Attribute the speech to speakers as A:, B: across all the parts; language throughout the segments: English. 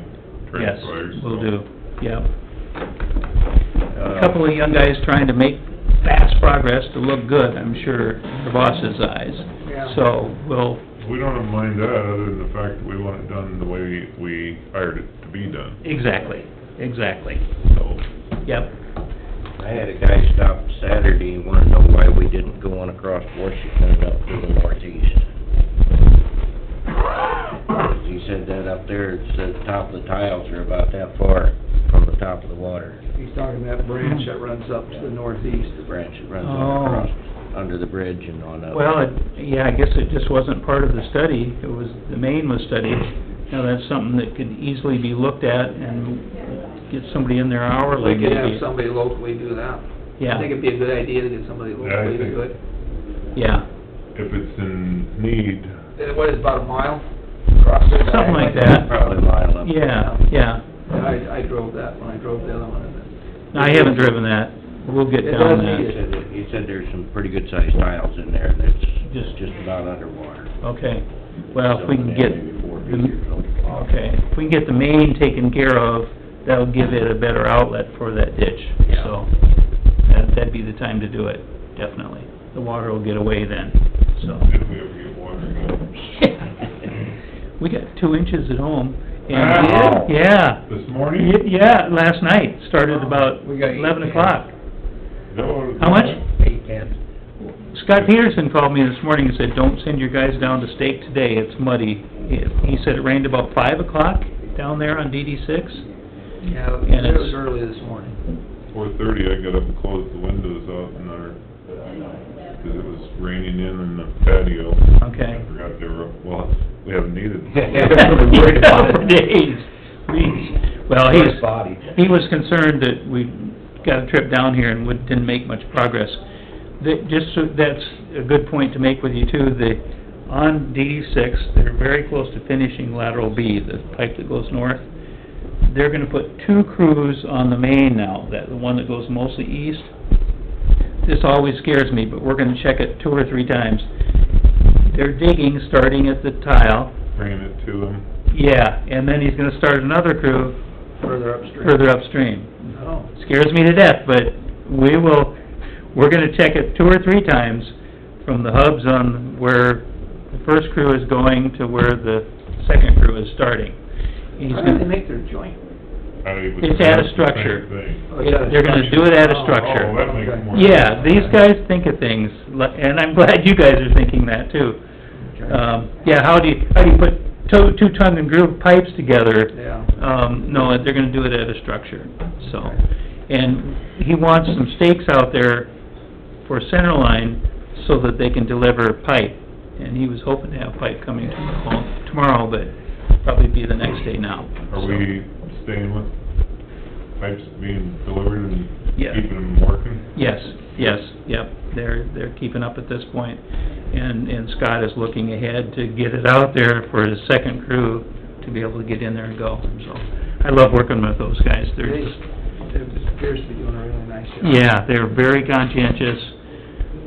A: Yes,
B: transfers.
A: will do, yeah.
B: Uh,
A: A couple of young guys trying to make fast progress to look good, I'm sure, for boss's eyes.
C: Yeah.
A: So, we'll,
B: We don't mind that, other than the fact that we want it done the way we hired it to be done,
A: exactly, exactly,
B: so.
A: yep.
D: I had a guy stop Saturday, and wanted to know why we didn't go on across Washington and up to the northeast. He said that up there, it said the top of the tiles are about that far from the top of the water.
C: He's talking that branch that runs up to the northeast.
D: The branch that runs
A: Oh.
D: on across, under the bridge and on up.
A: Well, it, yeah, I guess it just wasn't part of the study, it was, the main was studied. Now, that's something that could easily be looked at and get somebody in there hourly,
C: We could have
A: maybe.
C: somebody locally do that. I think
A: Yeah,
C: it'd be a good idea to get somebody
B: Yeah, I
C: locally to
B: think-
C: do it.
A: yeah,
B: If it's in need,
C: And What is about a mile across there?
A: Something like that.
D: Probably a mile up.
A: yeah, yeah.
C: And I, I drove that when I drove the other one. and
A: No, I haven't driven that, we'll get
C: It
A: down
C: does
D: He
C: need
A: that.
D: said, that- he said there's some pretty good sized tiles in there that's
A: Just-
D: just, just about underwater.
A: Okay, well, if we can get,
D: Maybe four feet or
A: the-
D: something.
A: okay, if we can get the main taken care of, that'll give it a better outlet for that ditch,
D: Yeah.
A: so. That, that'd be the time to do it, definitely. The water will get away then, so.
B: if we ever get water again.
A: We got two inches at home, and,
B: Wow.
A: yeah,
B: This
A: Y-
B: morning?
A: yeah, last night, started about
C: We got eight
A: eleven
C: cans.
A: o'clock.
B: No,
A: How much?
D: Uh,
C: Eight cans.
A: Scott Peterson called me this morning and said, "Don't send your guys down to stake today, it's muddy." He said it rained about five o'clock down there on DD six.
C: Yeah,
A: And
C: it was
A: it's-
C: early this morning.
B: Four thirty, I got up and closed the windows out in our, because it was raining in in the patio.
A: Okay.
B: I forgot they were, up. well, we haven't needed.
D: worried about it.
A: For days. Jeez. Well, he's,
D: Body.
A: he was concerned that we got a trip down here and would- didn't make much progress. That, just, so- that's a good point to make with you too, the, on DD six, they're very close to finishing lateral B, the pipe that goes north. They're gonna put two crews on the main now, that, the one that goes mostly east. This always scares me, but we're gonna check it two or three times. They're digging, starting at the tile,
B: Bringing it to them.
A: yeah, and then he's gonna start another crew
C: Further upstream.
A: further upstream.
C: Oh,
A: Scares me to death, but we will, we're gonna check it two or three times from the hubs on where the first crew is going to where the second crew is starting. He's
C: how do they
A: gonna,
C: make their joint?
B: I was
A: It's
B: asked
A: at a
B: the same
A: structure.
B: thing.
C: Oh, it's at a
A: They're gonna
C: structure.
A: do it at a
C: Oh,
A: structure.
B: Oh, that makes
C: okay.
B: more
A: yeah, these guys think of things, li- and I'm glad you guys are thinking that too.
C: Okay.
A: Um, yeah, how do you, how do you put two, two tongue and groove pipes together?
C: Yeah.
A: Um, no, they're gonna do it at a structure, so.
C: Okay.
A: And he wants some stakes out there for center line so that they can deliver pipe. And he was hoping to have pipe coming tomorrow, tomorrow, but probably be the next day now.
B: Are we staying with pipes being delivered and
A: Yeah.
B: keeping them working?
A: Yes, yes, yep, they're, they're keeping up at this point. And, and Scott is looking ahead to get it out there for his second crew to be able to get in there and go, so. I love working with those guys,
C: They,
A: they're just,
C: they appears to be doing a really nice job.
A: yeah, they're very conscientious.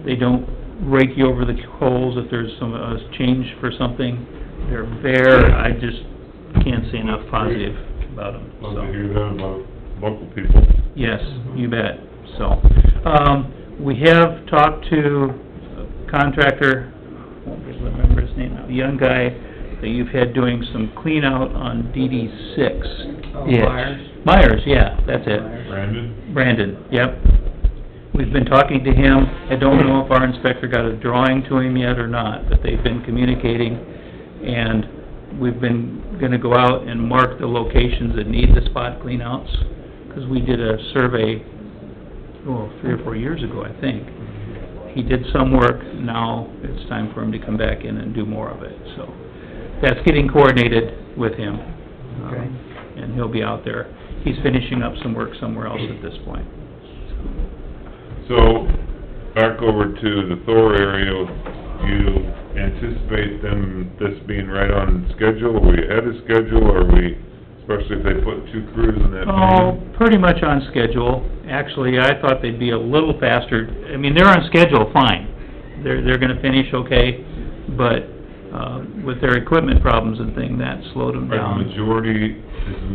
A: They don't rake you over the coals if there's some, uh, change for something. They're very, I just can't say enough positive about them, so.
B: Love to hear Mm-hmm. that about local people.
A: Yes, you bet, so. Um, we have talked to a contractor, I won't be able to remember his name now, young guy that you've had doing some clean out on DD six.
C: Oh,
A: Yeah.
C: Myers?
A: Myers, yeah, that's it.
C: Myers.
B: Brandon,
A: Brandon, yep. We've been talking to him. I don't know if our inspector got a drawing to him yet or not, but they've been communicating. And we've been, gonna go out and mark the locations that need the spot cleanouts, 'cause we did a survey, well, three or four years ago, I think. He did some work, now it's time for him to come back in and do more of it, so. That's getting coordinated with him.
C: Okay.
A: Um, And he'll be out there. He's finishing up some work somewhere else at this point.
B: so back over to the Thor area, you anticipate them, this being right on schedule? Are we ahead of schedule, or are we, especially if they put two crews in that?
A: Oh,
B: meeting?
A: pretty much on schedule. Actually, I thought they'd be a little faster. I mean, they're on schedule, fine. They're, they're gonna finish okay, but, uh, with their equipment problems and thing, that slowed them
B: Are the
A: down.
B: majority, is the